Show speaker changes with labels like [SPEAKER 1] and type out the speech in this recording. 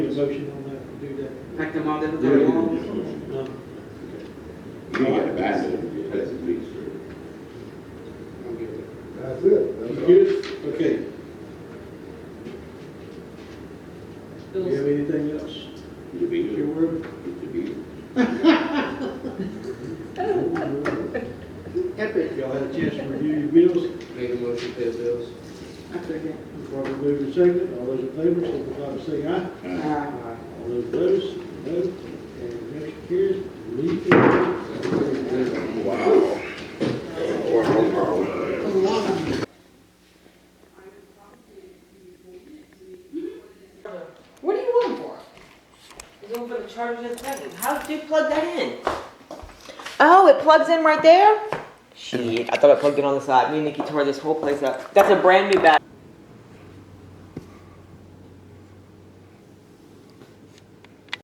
[SPEAKER 1] a motion on that, to do that? Uh,
[SPEAKER 2] Pack them all there with
[SPEAKER 3] Yeah,
[SPEAKER 2] the
[SPEAKER 3] we
[SPEAKER 2] wall?
[SPEAKER 3] did this
[SPEAKER 1] No.
[SPEAKER 3] one. We got a binder, that's at least.
[SPEAKER 4] That's it.
[SPEAKER 1] You
[SPEAKER 4] That's all.
[SPEAKER 1] good? Okay. Do you
[SPEAKER 5] Bills.
[SPEAKER 1] have anything else?
[SPEAKER 3] The
[SPEAKER 1] Your
[SPEAKER 3] bill,
[SPEAKER 1] word?
[SPEAKER 3] the bill.
[SPEAKER 2] Epic.
[SPEAKER 1] Y'all had a chance to review your bills?
[SPEAKER 6] Make a motion to pay the bills.
[SPEAKER 2] I second.
[SPEAKER 1] Probably move in second. All those in favor, signify by saying aye.
[SPEAKER 3] Uh,
[SPEAKER 2] Uh,
[SPEAKER 1] All those opposed, no. And motion carries. Leave it.
[SPEAKER 3] Wow. Or, or, or.
[SPEAKER 5] What do you want for? Is it over the charger that's plugged in? How did you plug that in? Oh, it plugs in right there? Shit, I thought I plugged it on the side. Me and Nikki tore this whole place up. That's a brand new battery.